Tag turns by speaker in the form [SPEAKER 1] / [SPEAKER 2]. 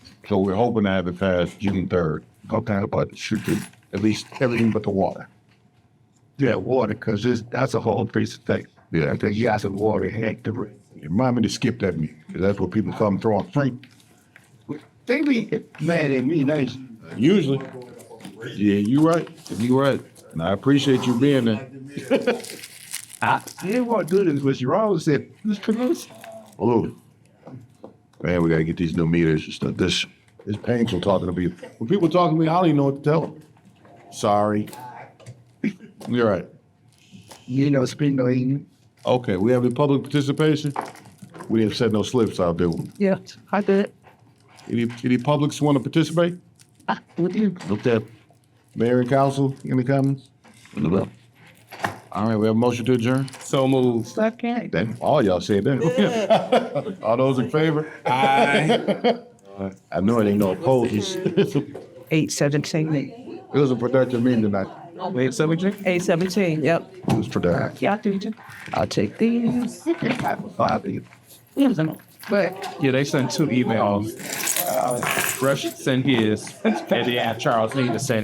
[SPEAKER 1] So we're hoping to have it passed June third. Okay, but it should be at least everything but the water.
[SPEAKER 2] Yeah, water, because that's a whole piece of thing.
[SPEAKER 1] Yeah.
[SPEAKER 2] I think you got some water, heck, the rest.
[SPEAKER 1] Remind me to skip that meeting, 'cause that's what people come throwing fruit.
[SPEAKER 2] They be mad at me, nice.
[SPEAKER 1] Usually. Yeah, you right. You right. And I appreciate you being there.
[SPEAKER 2] I I didn't want to do this, but you always said, let's pronounce it."
[SPEAKER 1] Blue. Man, we gotta get these new meters and stuff. This it's painful talking to people. When people talk to me, I don't even know what to tell them. Sorry. You're right.
[SPEAKER 2] you know, speaking of England.
[SPEAKER 1] Okay, we have the public participation. We didn't set no slips out, did we?
[SPEAKER 3] Yeah, I did.
[SPEAKER 1] Any any publics want to participate? Look that. Mayor and council, any comments? All right, we have a motion to adjourn.
[SPEAKER 4] So moved.
[SPEAKER 3] Second.
[SPEAKER 1] Then all y'all said that. All those in favor? I know it ain't no opposed. It
[SPEAKER 3] Eight seventeen.
[SPEAKER 1] was a productive meeting tonight.
[SPEAKER 4] Wait, so we drink?
[SPEAKER 3] Eight seventeen, yep.
[SPEAKER 1] It was productive.
[SPEAKER 3] Yeah, I do too. I'll take these. But
[SPEAKER 4] Yeah, they sent two emails. Rush sent his, and then Charles Lee sent